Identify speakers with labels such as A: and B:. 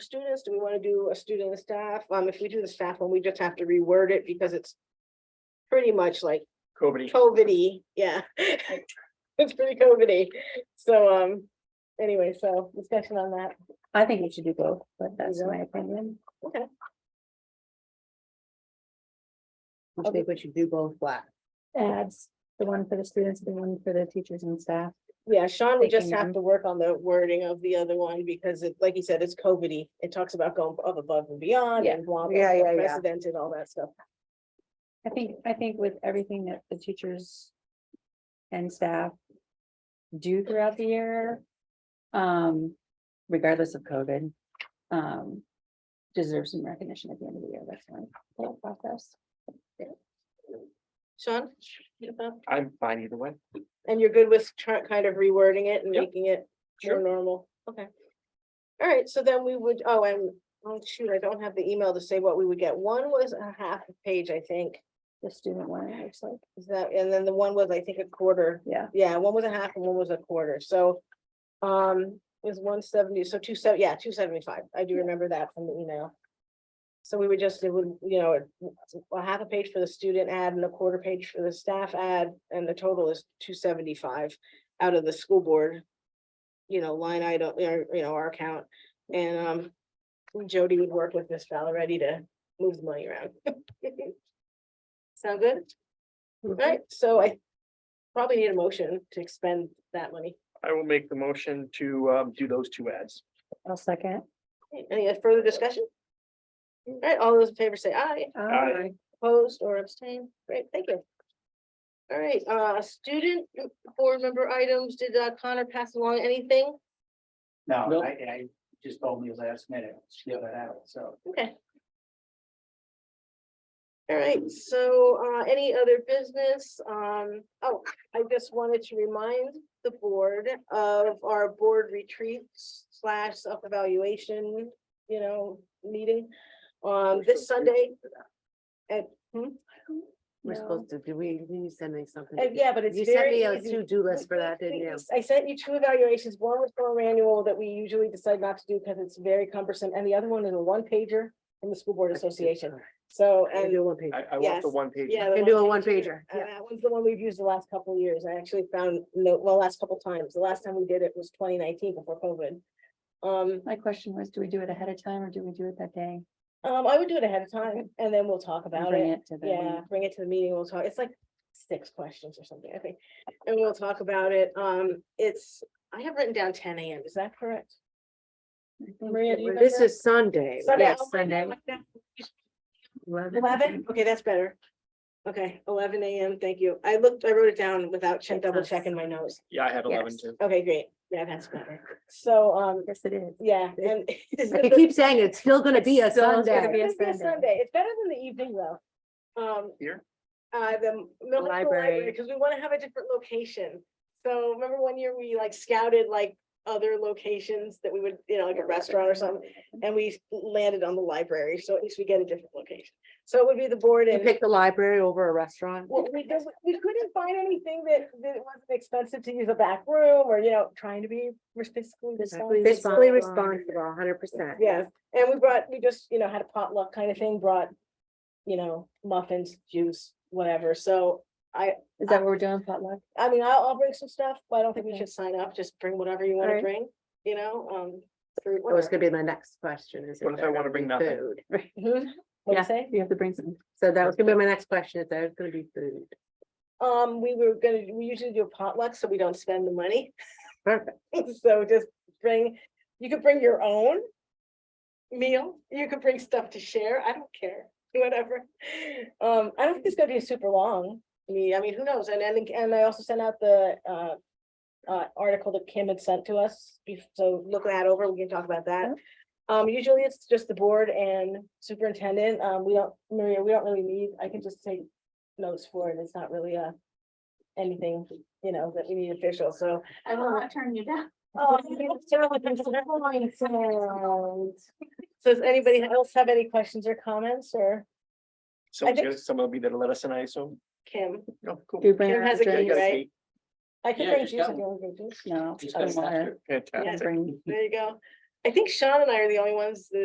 A: students? Do we want to do a student and staff? Um, if we do the staff one, we just have to reword it because it's pretty much like
B: Cody.
A: COVID-y, yeah. It's pretty COVID-y. So, um, anyway, so discussion on that.
C: I think you should do both, but that's
A: Yeah.
C: my opinion.
A: Okay.
C: I think we should do both black. Adds the one for the students, the one for the teachers and staff.
A: Yeah, Sean, we just
C: Thinking
A: have
C: of-
A: to work on the wording of the other one because it, like you said, it's COVID-y. It talks about going up above and beyond
C: Yeah.
A: and blah, blah,
D: Yeah, yeah,
A: blah,
D: yeah.
A: precedented, all that stuff.
C: I think, I think with everything that the teachers and staff do throughout the year, um, regardless of COVID, um, deserve some recognition at the end of the year. That's my thought process.
A: Sean? you thought-
B: I'm fine either way.
A: And you're good with try- kind of rewording it and
B: Yep.
A: making it more
B: Sure.
A: normal? Okay. All right, so then we would, oh, and, oh, shoot, I don't have the email to say what we would get. One was a half a page, I think.
C: The student one, it looks like,
A: Is that, and then the one was, I think, a quarter.
C: yeah.
A: Yeah, one was a half and one was a quarter, so. Um, it was one seventy, so two seven, yeah, two seventy-five. I do remember that from the email. So we would just, it would, you know, a half a page for the student ad and a quarter page for the staff ad, and the total is two seventy-five out of the school board. You know, line item, or, you know, our account, and, um, Jody would work with Miss Valeretti to move the money around. Sound good? Alright, so I probably need a motion to expend that money.
B: I will make the motion to um do those two ads.
C: I'll second.
A: Okay, Any further discussion? Alright, all those in favor say aye,
B: Aye.
A: opposed or abstained, great, thank you. Alright, uh, student board member items, did uh, Connor pass along anything?
E: No,
B: Nope.
E: I, I just told me last minute, she that out, so.
A: Okay. Alright, so, uh, any other business, um, oh, I just wanted to remind the board of our board retreat slash self-evaluation, you know, meeting. Um, this Sunday,
D: We're supposed to, do we, you send me something?
A: Uh, yeah, but it's
D: You sent
A: very
D: me a
A: easy.
D: to-do list for
A: We-
D: that, didn't
A: we-
D: you?
A: I sent you two evaluations, one was for our annual that we usually decide not to do because it's very cumbersome, and the other one is a one pager from the School Board Association, so,
D: I
A: and.
D: do one page.
B: I I want the
A: Yes.
B: one page.
A: Yeah.
D: Can
A: the
D: do a one-pager,
A: And
D: yeah.
A: that one's the one we've used the last couple of years. I actually found, no, well, last couple of times. The last time we did it was twenty nineteen before COVID. Um,
C: My question was, do we do it ahead of time or do we do it that day?
A: um, I would do it ahead of time and then we'll talk
C: and
A: about
C: bring
A: it.
C: to the
A: Yeah, bring it to the meeting. We'll talk. It's like six questions or something, I think. And we'll talk about it. Um, it's, I have written down ten AM. Is that correct? Maria, do you
D: This
A: remember?
D: is Sunday,
A: Sunday,
D: yes,
A: oh my
D: Sunday.
A: God,
D: Eleven.
A: Eleven? Okay, that's better. Okay, eleven AM. Thank you. I looked, I wrote it down without check,
D: It's
A: double
D: us.
A: checking my notes.
B: Yeah, I had eleven
C: Yes.
B: too.
A: Okay, great. Yeah, that's better. So, um,
C: Yes, it is.
A: Yeah, and.
D: I keep saying it's still gonna be a
C: It's still gonna
D: Sunday.
C: be a
A: It's gonna be a
C: Sunday.
A: Sunday. It's better than the evening though. Um,
B: Here,
A: uh, the Mill Hill
D: Library.
A: Library, because we want to have a different location. So remember one year we like scouted like other locations that we would, you know, like a restaurant or something, and we landed on the library, so at least we get a different location. So it would be the board
D: You
A: and.
D: pick the library over a restaurant.
A: Well, we just, we couldn't find anything that, that wasn't expensive to use a back room or, you know, trying to be fiscally responsible.
D: Fiscally responsible, hundred percent.
A: Yes, and we brought, we just, you know, had a potluck kind of thing, brought, you know, muffins, juice, whatever, so.
C: Is that what we're doing potluck?
A: I mean, I'll, I'll bring some stuff, but I don't think we
C: Okay.
A: should sign up, just bring whatever you wanna
C: Alright.
A: bring, you know, um. fruit,
D: That was
A: whatever.
D: gonna be my next question is.
B: What if I
D: there
B: wanna
D: gonna
B: bring
D: be
B: nothing?
D: food?
A: Mhm. What'd you
C: Yeah.
A: say?
C: You have to bring some.
D: So that was gonna be my next question, if there's gonna be food.
A: Um, we were gonna, we usually do a potluck, so we don't spend the money,
D: Perfect.
A: so just bring, you could bring your own. Meal, you could bring stuff to share, I don't care, whatever. Um, I don't think it's gonna be super long, me, I mean, who knows, and, and, and I also sent out the, uh. Uh, article that Kim had sent to us, be- so look that over, we can talk about that. Um, usually it's just the board and superintendent, um, we don't, Maria, we don't really need, I can just take notes for it, it's not really a. Anything, you know, that we need official, so.
C: I will not turn you down.
A: Oh, So does anybody else have any questions or comments, or I
B: someone's
A: think-
B: gonna- someone will be there to let us in, I assume.
A: Kim?
B: No, cool.
C: Do you bring
A: Kim
C: our
A: has a
B: Yeah, I
A: good
C: drinks?
B: gotta
A: right?
B: see.
A: I can
E: Yeah,
A: bring
E: just
A: juice if
E: got
A: you want to drink juice.
C: No,
E: Just
C: I
E: gotta
C: don't want
E: have
C: to.
E: to-
B: Fantastic.
C: Bring
A: There you go. I think Sean and I are the only ones that